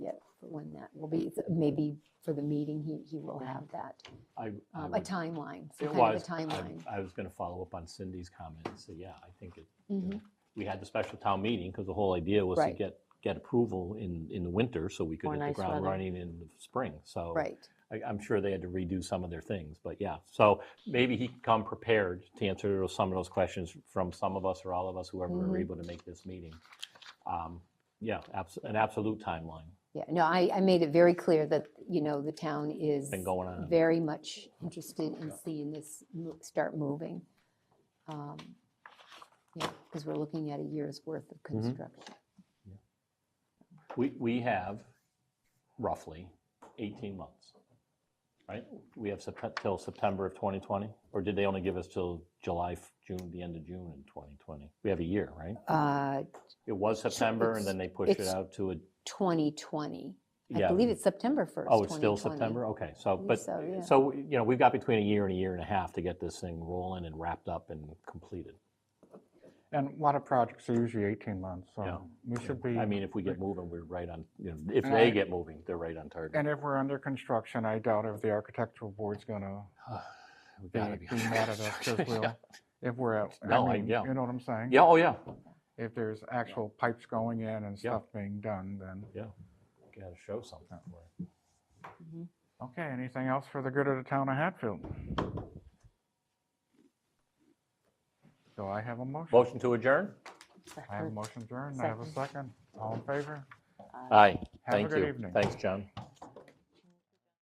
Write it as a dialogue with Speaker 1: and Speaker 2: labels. Speaker 1: will be, maybe for the meeting, he, he will have that,
Speaker 2: I, Mm-hmm. I
Speaker 1: um, a
Speaker 2: would-
Speaker 1: timeline, some
Speaker 2: it
Speaker 1: kind of a
Speaker 2: was, I-
Speaker 1: timeline.
Speaker 2: I was going to follow up on Cindy's comment and say, yeah, I think it, you
Speaker 1: Mhm.
Speaker 2: know, we had the special town meeting because the whole idea was to
Speaker 1: Right.
Speaker 2: get, get approval in, in the winter so we could
Speaker 3: Or
Speaker 2: hit the
Speaker 3: nice
Speaker 2: ground
Speaker 3: weather.
Speaker 2: running in the spring, so.
Speaker 1: Right,
Speaker 2: I- I'm sure they had to redo some of their things, but yeah. So maybe he can come prepared to answer those- some of those questions from some of us or all of us, whoever were
Speaker 1: Mhm.
Speaker 2: able to make this meeting. Um, Yeah, abs- an absolute timeline,
Speaker 1: yeah, no, I, I made it very clear that, you know, the town is
Speaker 2: been going on.
Speaker 1: very much interested in seeing this mo- start moving. Um, Yeah, because we're looking at a year's worth of
Speaker 2: Mm-hmm.
Speaker 1: construction.
Speaker 2: We, we have roughly 18 months, right? We have Sept- till September of 2020? Or did they only give us till July, f- June, the end of June in 2020? We have a year, right?
Speaker 1: Uh,
Speaker 2: It was September and
Speaker 1: it's-
Speaker 2: then they pushed it
Speaker 1: it's-
Speaker 2: out to a,
Speaker 1: 2020, I
Speaker 2: yeah.
Speaker 1: believe it's September 1st, 2020.
Speaker 2: Oh, it's still September? Okay, so,
Speaker 1: believe
Speaker 2: but,
Speaker 1: so, yeah.
Speaker 2: so, you know, we've got between a year and a year and a half to get this thing rolling and wrapped up and completed.
Speaker 4: And a lot of projects are usually 18 months,
Speaker 2: Yeah.
Speaker 4: so we should be.
Speaker 2: I mean, if we get moving, we're right on, you know, if
Speaker 4: And
Speaker 2: they
Speaker 4: I-
Speaker 2: get moving, they're right on target.
Speaker 4: And if we're under construction, I doubt if the architectural board's going to
Speaker 2: We
Speaker 4: be
Speaker 2: gotta be
Speaker 4: be mad at us because
Speaker 2: Yeah.
Speaker 4: we'll, if we're, at-
Speaker 2: No, I-
Speaker 4: I mean,
Speaker 2: yeah.
Speaker 4: you know what I'm saying?
Speaker 2: Yeah, oh, yeah,
Speaker 4: If there's actual pipes going in and
Speaker 2: Yeah.
Speaker 4: stuff being done, then,
Speaker 2: yeah. Gotta show something for it.
Speaker 4: okay, anything else for the good of the town of Hatfield? So I have a motion.
Speaker 2: Motion to adjourn?
Speaker 4: I have a motion adjourned. I have a second. All in favor?
Speaker 2: Aye,
Speaker 4: Have a
Speaker 2: thank
Speaker 4: good
Speaker 2: you.
Speaker 4: evening.
Speaker 2: Thanks, John.